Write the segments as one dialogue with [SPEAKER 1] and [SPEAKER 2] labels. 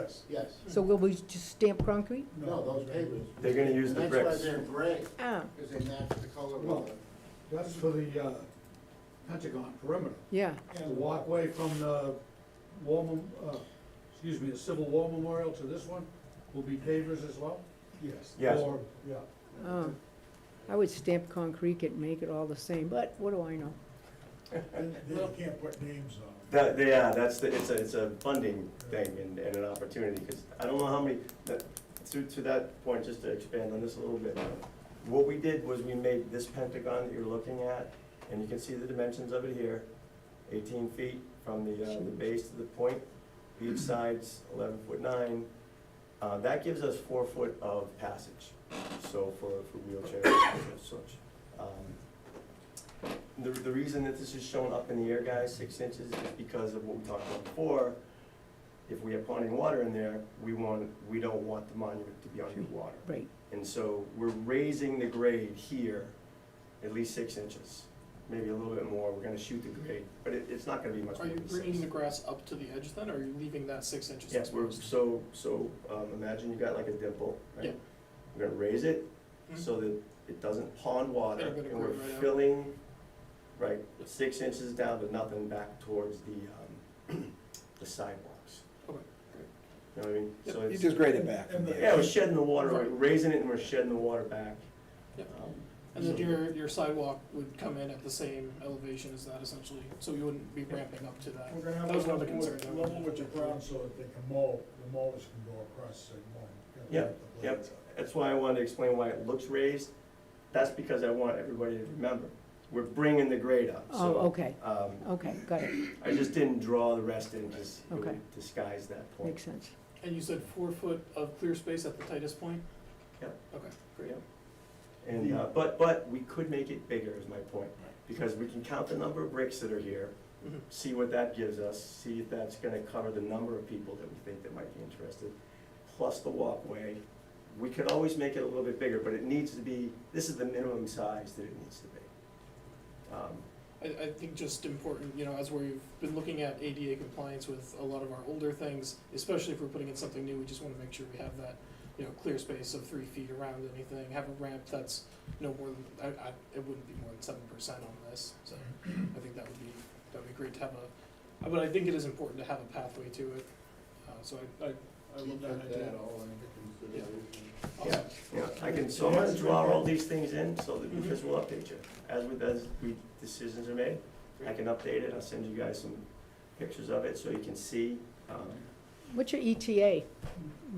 [SPEAKER 1] Yes.
[SPEAKER 2] Yes,
[SPEAKER 3] So will we just stamp concrete?
[SPEAKER 2] no, those pavers.
[SPEAKER 4] They're gonna use the
[SPEAKER 2] That's why
[SPEAKER 4] bricks.
[SPEAKER 2] they're gray,
[SPEAKER 3] Ah,
[SPEAKER 2] because they match the color
[SPEAKER 1] Well,
[SPEAKER 2] of the.
[SPEAKER 1] That's for the uh, Pentagon perimeter.
[SPEAKER 3] yeah,
[SPEAKER 1] The walkway from the war, mem- uh, excuse me, the Civil War Memorial to this one will be pavers as well? Yes.
[SPEAKER 4] Yes.
[SPEAKER 1] Or, yeah,
[SPEAKER 3] oh. I would stamp concrete and make it all the same, but what do I know?
[SPEAKER 5] They can't put names on it.
[SPEAKER 4] That, yeah, that's the, it's a, it's a funding thing and, and an opportunity, because I don't know how many, that, to, to that point, just to expand on this a little bit. What we did was we made this pentagon that you're looking at, and you can see the dimensions of it here, eighteen feet from the, uh, the base to the point, each side's eleven foot nine. Uh, that gives us four foot of passage, so for, for wheelchairs and such. Um, the, the reason that this is shown up in the air, guys, six inches, is because of what we talked about before. If we have ponding water in there, we want, we don't want the monument to be underwater.
[SPEAKER 3] Right,
[SPEAKER 4] And so we're raising the grade here at least six inches, maybe a little bit more. We're gonna shoot the grade, but it, it's not gonna be much more
[SPEAKER 6] Are you
[SPEAKER 4] than
[SPEAKER 6] bringing the
[SPEAKER 4] six.
[SPEAKER 6] grass up to the edge then, or are you leaving that six inches?
[SPEAKER 4] Yes, we're,
[SPEAKER 6] exposed?
[SPEAKER 4] so, so, um, imagine you got like a dimple, right?
[SPEAKER 6] Yeah.
[SPEAKER 4] We're gonna raise it
[SPEAKER 6] Mhm.
[SPEAKER 4] so that it doesn't pond water,
[SPEAKER 6] It'll go to
[SPEAKER 4] and we're
[SPEAKER 6] ground right out.
[SPEAKER 4] filling, right, six inches down, but nothing back towards the, um, the sidewalks.
[SPEAKER 6] Okay,
[SPEAKER 4] You know what I mean? So
[SPEAKER 7] You
[SPEAKER 4] it's,
[SPEAKER 7] just grade it back from
[SPEAKER 5] And the-
[SPEAKER 4] yeah, we're
[SPEAKER 7] there.
[SPEAKER 4] shedding the water, we're
[SPEAKER 6] Right.
[SPEAKER 4] raising it and we're shedding the water back.
[SPEAKER 6] Yep.
[SPEAKER 4] Um,
[SPEAKER 6] And then
[SPEAKER 4] so-
[SPEAKER 6] your, your sidewalk would come in at the same elevation as that essentially, so you wouldn't be ramping up to that.
[SPEAKER 5] We're gonna have
[SPEAKER 6] That was
[SPEAKER 5] to
[SPEAKER 6] one of the
[SPEAKER 5] level
[SPEAKER 6] concerns.
[SPEAKER 5] with- level with the ground so that they can mow, the mowers can go across the same one.
[SPEAKER 4] Yep, yep. That's why I wanted to explain why it looks raised. That's because I want everybody to remember, we're bringing the grade up,
[SPEAKER 3] oh,
[SPEAKER 4] so.
[SPEAKER 3] okay,
[SPEAKER 4] Um,
[SPEAKER 3] okay, got it,
[SPEAKER 4] I just didn't draw the rest in, because it
[SPEAKER 3] Okay.
[SPEAKER 4] would disguise that point.
[SPEAKER 3] makes sense.
[SPEAKER 6] And you said four foot of clear space at the tightest point?
[SPEAKER 4] Yep.
[SPEAKER 6] Okay, great.
[SPEAKER 4] Yep. And, uh, but, but we could make it bigger is my point,
[SPEAKER 6] Right.
[SPEAKER 4] because we can count the number of bricks that are here,
[SPEAKER 6] Mhm.
[SPEAKER 4] see what that gives us, see if that's gonna cover the number of people that we think that might be interested, plus the walkway. We could always make it a little bit bigger, but it needs to be, this is the minimum size that it needs to be. Um,
[SPEAKER 6] I, I think just important, you know, as we've been looking at ADA compliance with a lot of our older things, especially if we're putting in something new, we just wanna make sure we have that, you know, clear space of three feet around anything, have a ramp that's no more than, I, I, it wouldn't be more than seven percent on this, so I think that would be, that'd be great to have a, uh, but I think it is important to have a pathway to it, uh, so I, I, I love that
[SPEAKER 2] Keep
[SPEAKER 6] idea.
[SPEAKER 2] that all into consideration.
[SPEAKER 4] Yeah, yeah, I can, so I'm gonna draw all these things in, so that, because we'll update you, as with, as we, decisions are made. I can update it, I'll send you guys some pictures of it, so you can see, um,
[SPEAKER 3] What's your E ETA?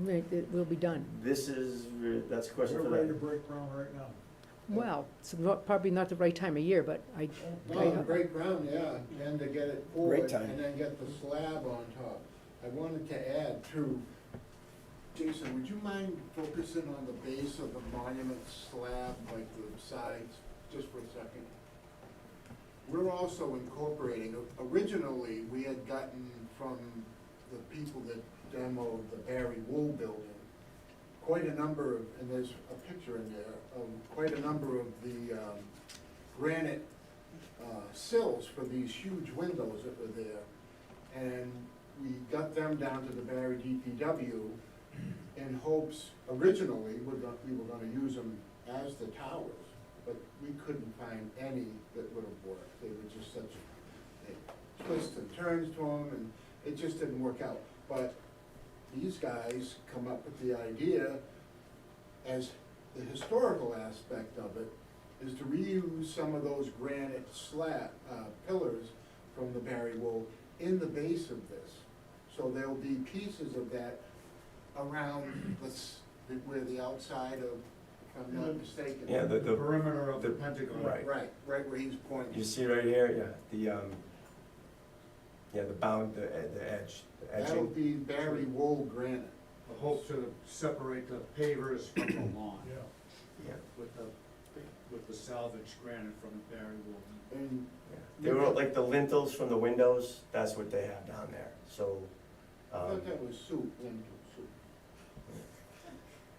[SPEAKER 3] Right, That will be done.
[SPEAKER 4] This is, that's a question
[SPEAKER 5] We're
[SPEAKER 4] for
[SPEAKER 5] ready to
[SPEAKER 4] them.
[SPEAKER 5] break ground right now.
[SPEAKER 3] Well, it's not- probably not the right time of year, but I,
[SPEAKER 2] Well, the break ground, yeah, then to get it forward,
[SPEAKER 7] time.
[SPEAKER 2] and then get the slab on top. I wanted to add too, Jason, would you mind focusing on the base of the monument slab, like the sides, just for a second? We're also incorporating, originally, we had gotten from the people that demoed the Barry Wool building, quite a number of, and there's a picture in there, of quite a number of the um, granite uh, sills for these huge windows that were there. And we got them down to the Barry DPW in hopes, originally, we're gonna, we were gonna use them as the towers, but we couldn't find any that would have worked. They were just such, they twists and turns to them, and it just didn't work out. But these guys come up with the idea as the historical aspect of it, is to reuse some of those granite slab, uh, pillars from the Barry Wool in the base of this. So there'll be pieces of that around the, s- the- where the outside of, if I'm not mistaken.
[SPEAKER 4] Mm. Yeah, the, the,
[SPEAKER 1] perimeter of the
[SPEAKER 4] the-
[SPEAKER 1] Pentagon.
[SPEAKER 4] right.
[SPEAKER 2] Right, right where he's
[SPEAKER 4] you
[SPEAKER 2] pointing.
[SPEAKER 4] see right here, yeah, the, um, yeah, the bound, the, e- the edge, the
[SPEAKER 2] That'll
[SPEAKER 4] edging.
[SPEAKER 2] be Barry Wool granite.
[SPEAKER 1] The hope to separate the pavers from the lawn
[SPEAKER 5] Yeah.
[SPEAKER 4] Yeah,
[SPEAKER 1] with the, with the salvage granite from the Barry Wool.
[SPEAKER 2] And
[SPEAKER 4] yeah. They were like the lintels from the windows, that's what they have down there, so,
[SPEAKER 2] I
[SPEAKER 4] um,
[SPEAKER 2] thought that was soup, lentil soup.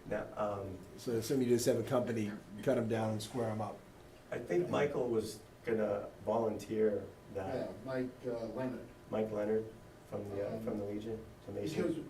[SPEAKER 4] now, um,
[SPEAKER 7] So assume you just have a company cut them down and square them up.
[SPEAKER 4] I think Michael was gonna volunteer
[SPEAKER 2] Yeah,
[SPEAKER 4] that,
[SPEAKER 2] Mike uh, Leonard.
[SPEAKER 4] Mike Leonard from the, uh, from the Legion, to
[SPEAKER 2] Because
[SPEAKER 4] Mason.